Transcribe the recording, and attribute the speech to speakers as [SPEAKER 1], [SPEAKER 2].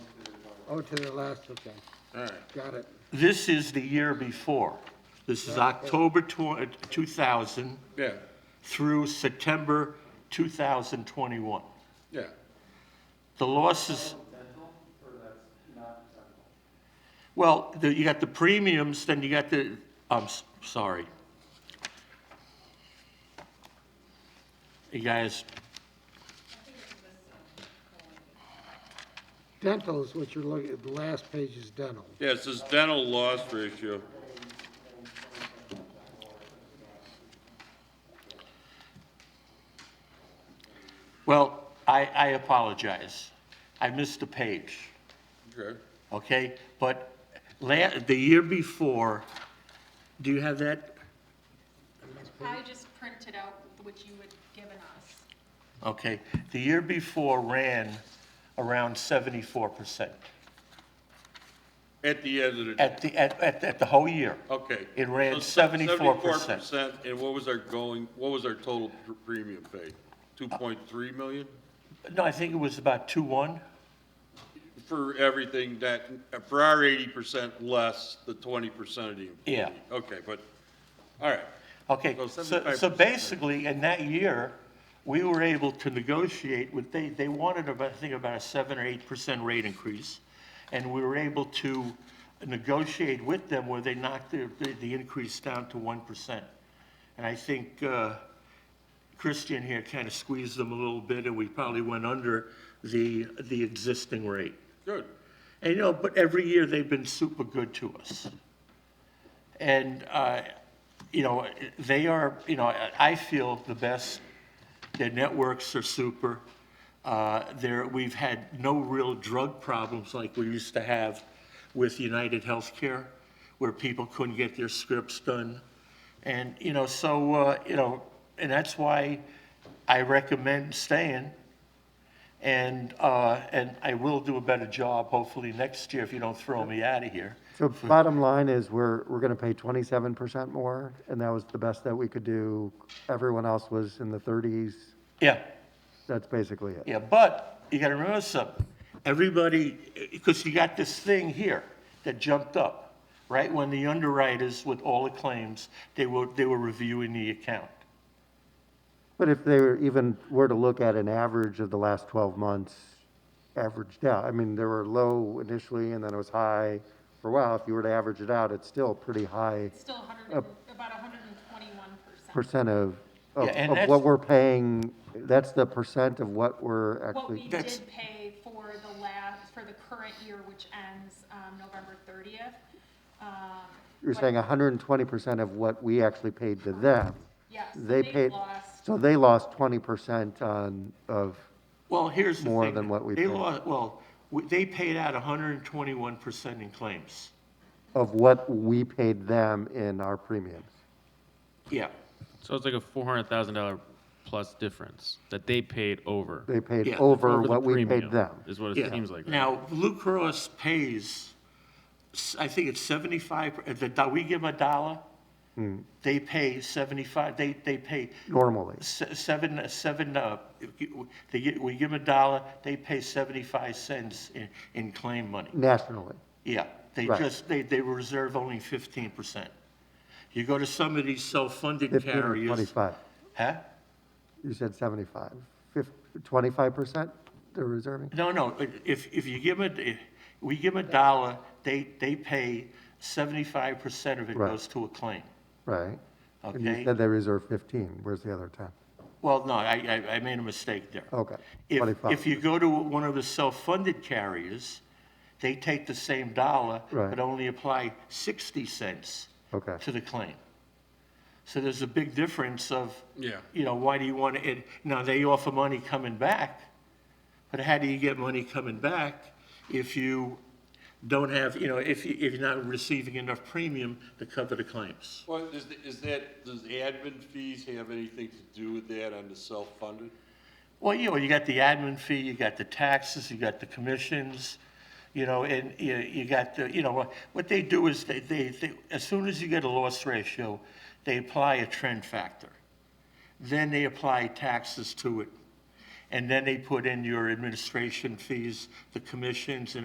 [SPEAKER 1] Oh, to the last, okay,
[SPEAKER 2] All right.
[SPEAKER 1] got it.
[SPEAKER 3] This is the year before. This is October tw- 2000
[SPEAKER 2] Yeah,
[SPEAKER 3] through September 2021.
[SPEAKER 2] yeah.
[SPEAKER 3] The losses. Well, the- you got the premiums, then you got the, I'm s- sorry. You guys,
[SPEAKER 1] Dental is what you're looking, the last page is dental.
[SPEAKER 2] Yeah, it says dental loss ratio.
[SPEAKER 3] well, I, I apologize. I missed a page.
[SPEAKER 2] Okay.
[SPEAKER 3] Okay, but la, the year before, do you have that?
[SPEAKER 4] I just printed out what you had given us.
[SPEAKER 3] Okay, the year before ran around seventy-four percent.
[SPEAKER 2] At the end of the day.
[SPEAKER 3] At the, at, at, at the whole year.
[SPEAKER 2] Okay.
[SPEAKER 3] It ran
[SPEAKER 2] So se-
[SPEAKER 3] 74%.
[SPEAKER 2] 74%, and what was our going, what was our total pr- premium paid? 2.3 million?
[SPEAKER 3] No, I think it was about two-one.
[SPEAKER 2] For everything that, for our 80% less the 20% of the.
[SPEAKER 3] Yeah.
[SPEAKER 2] Okay, but, all right,
[SPEAKER 3] Okay,
[SPEAKER 2] So
[SPEAKER 3] so, so
[SPEAKER 2] 75%.
[SPEAKER 3] basically, in that year, we were able to negotiate with, they, they wanted about, I think about a seven or eight percent rate increase. And we were able to negotiate with them where they knocked the, the, the increase down to one percent. And I think, uh, Christian here kind of squeezed them a little bit and we probably went under the, the existing rate.
[SPEAKER 2] good.
[SPEAKER 3] And, you know, but every year they've been super good to us. And, uh, you know, they are, you know, I- I feel the best. Their networks are super. Uh, there, we've had no real drug problems like we used to have with United Healthcare, where people couldn't get their scripts done. And, you know, so, uh, you know, and that's why I recommend staying. And, uh, and I will do a better job hopefully next year if you don't throw me out of here.
[SPEAKER 5] So bottom line is we're, we're gonna pay twenty-seven percent more and that was the best that we could do. Everyone else was in the thirties.
[SPEAKER 3] Yeah,
[SPEAKER 5] That's basically it.
[SPEAKER 3] yeah, but you gotta remember something. Everybody, because you got this thing here that jumped up, right? When the underwriters with all the claims, they were, they were reviewing the account.
[SPEAKER 5] But if they were even were to look at an average of the last twelve months averaged out, I mean, there were low initially and then it was high for a while. If you were to average it out, it's still pretty high
[SPEAKER 4] Still 100, and- about 121%.
[SPEAKER 5] percent of, of,
[SPEAKER 3] Yeah, and
[SPEAKER 5] of
[SPEAKER 3] that's-
[SPEAKER 5] what we're paying. That's the percent of what we're
[SPEAKER 4] What we
[SPEAKER 5] actually,
[SPEAKER 3] That's-
[SPEAKER 4] did pay for the last, for the current year, which ends um, November 30th. um,
[SPEAKER 5] you're
[SPEAKER 4] but-
[SPEAKER 5] saying hundred and twenty percent of what we actually paid to them.
[SPEAKER 4] Yes,
[SPEAKER 5] They paid,
[SPEAKER 4] lost.
[SPEAKER 5] so they lost twenty percent on, of,
[SPEAKER 3] Well, here's the thing.
[SPEAKER 5] More than what we
[SPEAKER 3] They
[SPEAKER 5] paid.
[SPEAKER 3] lost, well, we- they paid out hundred and twenty-one percent in claims.
[SPEAKER 5] of what we paid them in our premiums.
[SPEAKER 3] Yeah,
[SPEAKER 6] So it's like a four hundred thousand dollar plus difference that they paid over.
[SPEAKER 5] They paid
[SPEAKER 3] Yeah.
[SPEAKER 5] over
[SPEAKER 6] the
[SPEAKER 5] what we
[SPEAKER 6] premium,
[SPEAKER 5] paid them.
[SPEAKER 6] Is what
[SPEAKER 3] yeah.
[SPEAKER 6] it seems like. right?
[SPEAKER 3] Now, Blue Cross pays, s- I think it's seventy-five, per- the, do- we give them a dollar, they pay seventy-five, they, they pay
[SPEAKER 5] Normally,
[SPEAKER 3] se- seven, seven, uh, they, gi- we give them a dollar, they pay seventy-five cents in, in claim money.
[SPEAKER 5] nationally.
[SPEAKER 3] Yeah, they
[SPEAKER 5] Right.
[SPEAKER 3] just, they, they reserve only fifteen percent. You go to some of these self-funded
[SPEAKER 5] 15 or
[SPEAKER 3] carriers.
[SPEAKER 5] 25?
[SPEAKER 3] Huh?
[SPEAKER 5] You said seventy-five. Fif- twenty-five percent they're reserving?
[SPEAKER 3] No, no, if, if you give them, we give them a dollar, they, they pay seventy-five percent of it
[SPEAKER 5] Right.
[SPEAKER 3] goes to a claim,
[SPEAKER 5] Right. And you
[SPEAKER 3] okay?
[SPEAKER 5] said they reserved fifteen. Where's the other ten?
[SPEAKER 3] Well, no, I, I, I made a mistake there.
[SPEAKER 5] Okay,
[SPEAKER 3] If,
[SPEAKER 5] 25.
[SPEAKER 3] if you go to one of the self-funded carriers, they take the same dollar,
[SPEAKER 5] Right.
[SPEAKER 3] but only apply sixty cents
[SPEAKER 5] Okay.
[SPEAKER 3] to the claim. So there's a big difference of,
[SPEAKER 2] Yeah.
[SPEAKER 3] you know, why do you want it, now they offer money coming back, but how do you get money coming back if you don't have, you know, if, you- if you're not receiving enough premium to cover the claims?
[SPEAKER 2] Well, is, the- is that, does admin fees have anything to do with that on the self-funded?
[SPEAKER 3] Well, you know, you got the admin fee, you got the taxes, you got the commissions, you know, and you, you got the, you know, what- what they do is they, they, they, as soon as you get a loss ratio, they apply a trend factor. Then they apply taxes to it. And then they put in your administration fees, the commissions and